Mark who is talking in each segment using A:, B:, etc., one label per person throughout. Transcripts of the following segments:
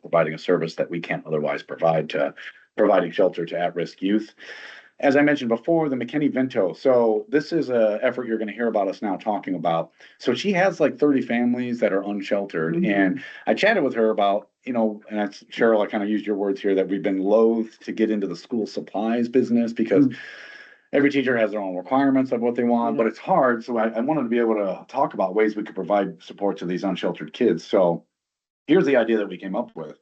A: providing a service that we can't otherwise provide to providing shelter to at-risk youth. As I mentioned before, the McKinney Vento, so this is a effort you're gonna hear about us now talking about. So she has like thirty families that are unsheltered
B: Mhm.
A: and I chatted with her about, you know, and that's Cheryl, I kind of used your words here that we've been loath to get into the school supplies business because every teacher has their own requirements of what they want, but it's hard. So I, I wanted to be able to talk about ways we could provide support to these unsheltered kids. So here's the idea that we came up with.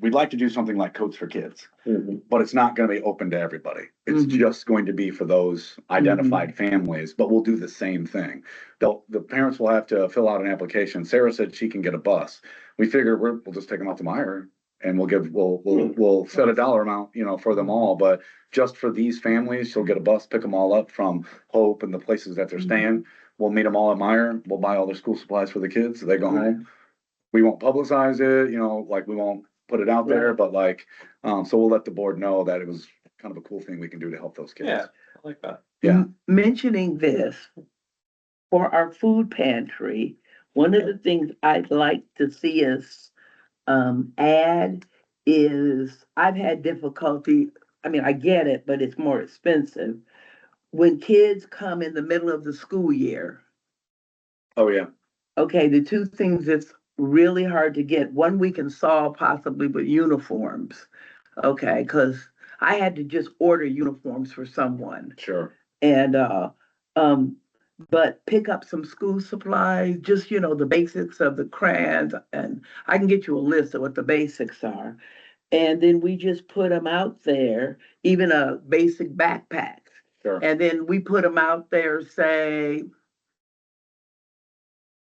A: We'd like to do something like Codes for Kids,
C: Mm-hmm.
A: but it's not gonna be open to everybody. It's
B: Mhm.
A: just going to be for those identified families, but we'll do the same thing. They'll, the parents will have to fill out an application. Sarah said she can get a bus. We figure we're, we'll just take them out to Meyer and we'll give, we'll, we'll, we'll set a dollar amount, you know, for them all, but just for these families, she'll get a bus, pick them all up from Hope and the places that they're
B: Mhm.
A: staying. We'll meet them all at Meyer. We'll buy all their school supplies for the kids. so They go
B: Right.
A: home. We won't publicize it, you know, like we won't put it out there, but like, um, so we'll let the board know that it was kind of a cool thing we can do to help those kids.
D: Yeah. I like that.
A: Yeah.
B: Mentioning this, for our food pantry, one of the things I'd like to see us um add is, I've had difficulty, I mean, I get it, but it's more expensive. When kids come in the middle of the school year,
A: Oh, yeah.
B: okay, the two things that's really hard to get, one we can solve possibly with uniforms. Okay, cause I had to just order uniforms for someone.
A: Sure.
B: and uh um but pick up some school supplies just you know the basics of the crayons and i can get you a list of what the basics are and then we just put them out there even a basic backpack
A: Sure.
B: and then we put them out there say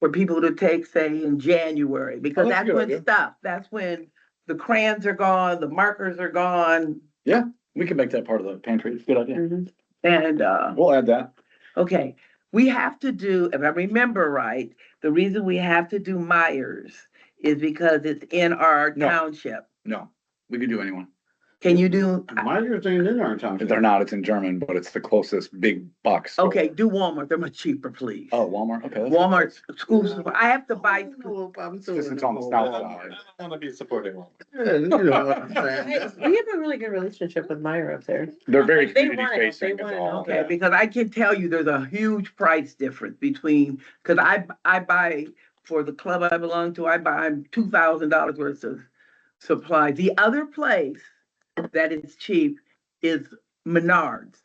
B: for people to take say in january because
A: that's a
B: that's
A: good
B: when
A: idea.
B: stuff that's when the crayons are gone the markers are gone
A: We can make that part of the pantry. It's a good idea.
B: and uh
A: We'll add that.
B: Okay, we have to do, if I remember right, the reason we have to do Myers is because it's in our
A: No.
B: township.
A: No, we could do anyone.
B: Can you do,
A: Mm-hmm.
D: Myers ain't in our town.
A: If they're not, it's in German, but it's the closest big box. store.
B: okay, do Walmart, they're much cheaper, please.
A: Oh, Mm-hmm. Walmart, okay. that's-
B: Walmart, schools,
D: Yeah.
B: I have to
E: Oh,
B: buy, school-
A: This is on the south side.
D: Wanna be supporting one.
E: We have a really good relationship with Myra up there.
A: They're very
E: They
A: community
E: want it, they
A: facing. is
E: want it,
A: all.
E: okay.
B: okay, because I can tell you there's a huge price difference between, cause I, I buy, for the club I belong to, I buy two thousand dollars worth of supplies. The other place that is cheap is Menards.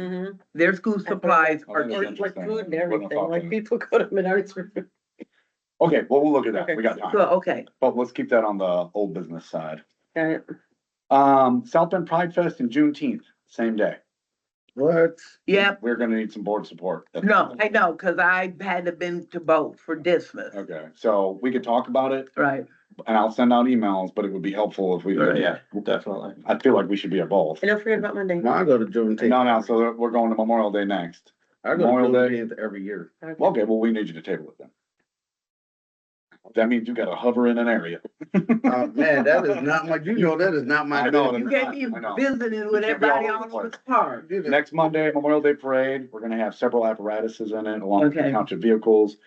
E: Mhm.
B: Their school supplies
A: Oh,
B: are
A: that
E: Or
A: is
B: cheap.
E: like
A: interesting.
E: food and
A: Wouldn't have
E: everything,
A: thought
E: like
A: that.
E: people go to Menards for food.
A: Okay, well, we'll look at that.
E: Okay.
A: We got time.
B: So, okay,
A: But let's keep that on the old business side.
E: Got it.
A: Um, South Bend Pride Fest in Juneteenth, same day.
D: What?
B: yeah,
A: We're gonna need some board support.
B: no, I know, cause I hadn't been to both for Dismas,
A: Okay, so we could talk about it
B: right?
A: and I'll send out emails, but it would be helpful if we, could-
D: Yeah, definitely.
A: I feel like we should be at both.
E: And don't forget about Monday.
C: No, I go to Juneteenth.
A: No, no, so we're going to Memorial Day next.
C: I go to
A: Memorial Day.
C: Juneteenth every year.
E: Okay.
A: Okay, well, we need you to table it then. That means you gotta hover in an area.
C: Oh, man, that is not my, you know, that is not my.
A: I know,
C: thing.
B: You gave me
A: I know.
B: visiting with
A: You should be all
B: everybody
A: over
B: all
A: the
B: over the
A: place.
B: park.
C: You just-
A: Next Monday, Memorial Day Parade, we're gonna have several apparatuses in it along with
B: Okay.
A: township vehicles.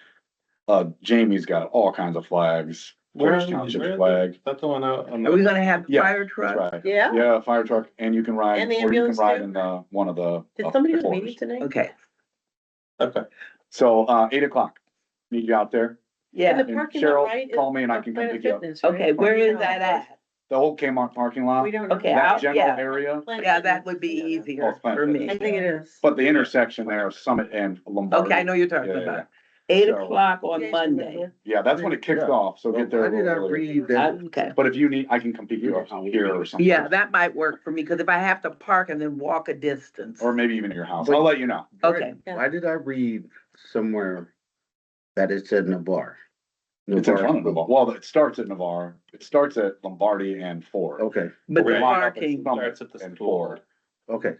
A: Uh, Jamie's got all kinds of flags, Portage Township flag,
D: That's the one out on
B: Are we
D: the.
B: gonna have
A: Yeah,
B: fire
A: that's
B: trucks?
A: right.
E: Yeah,
A: Yeah, fire truck, and you can ride,
E: And the
A: or you can
E: ambulance
A: ride
E: too?
A: in, uh, one of the.
E: did
A: of
E: somebody
A: the
E: go to meeting
A: quarters.
E: tonight?
B: Okay,
D: Okay.
A: So, uh, eight o'clock, need you out there,
E: In
B: yeah,
E: the
A: And
E: parking lot,
A: Cheryl,
E: right? is
A: call me and I
E: the
A: can come
E: Planet
A: pick you up.
E: Fitness, right?
B: okay, where is that at?
A: the whole Kmart parking lot,
E: We don't. know.
B: Okay, I'll-
A: that general
B: yeah.
A: area,
E: Planet
B: Yeah,
E: Fitness.
B: that would be
E: Yeah.
B: easier
A: Oh,
B: for
E: I
B: me.
E: think it is.
A: but the intersection there, of Summit and Lombardi.
B: Okay, I know you're talking
A: Yeah, yeah,
B: about, eight
A: So-
B: o'clock
E: Yeah,
B: on
E: it's
B: Monday,
E: Monday.
A: Yeah, that's when it kicks
C: Yeah.
A: off, so
C: Why
A: get there. a
C: did I
A: little earlier.
C: read
B: I-
C: that?
B: okay.
A: But if you need, I can come pick you up here or something.
B: Yeah, that might work for me, cause if I have to park and then walk a distance,
A: Or maybe even at your house, I'll let you know.
B: okay,
C: Why did I read somewhere that it said Navarre?
A: It's in front of Navarre. Well, it starts at Navarre. It starts at Lombardi and Ford.
C: Okay,
B: but
D: we
B: the
D: line
A: up at
B: parking,
A: some-
D: Starts at the
A: And
D: school.
A: Ford.
C: okay.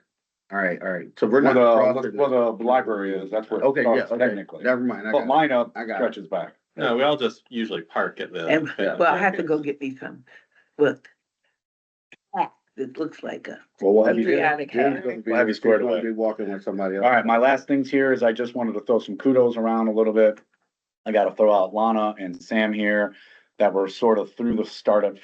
C: All right, all right. So we're
A: Where
C: not
A: the,
C: crossing.
A: where the library is, that's where it
C: Okay, yeah,
A: starts
C: okay.
A: technically.
C: Never mind. I
A: But
C: got it.
A: mine up
C: I got it.
A: stretches back.
D: No, we all just usually park at the.
B: and,
D: Yeah.
B: well, I have to go get me some, look. It looks like uh, a.
A: Well, we'll have you.
B: Patriotic
C: You're
B: hat.
C: gonna be-
A: We'll have you squared
C: you're gonna
A: away.
C: Be walking with somebody else.
A: All right, my last things here is I just wanted to throw some kudos around a little bit. I gotta throw out Lana and Sam here that were sort of through the startup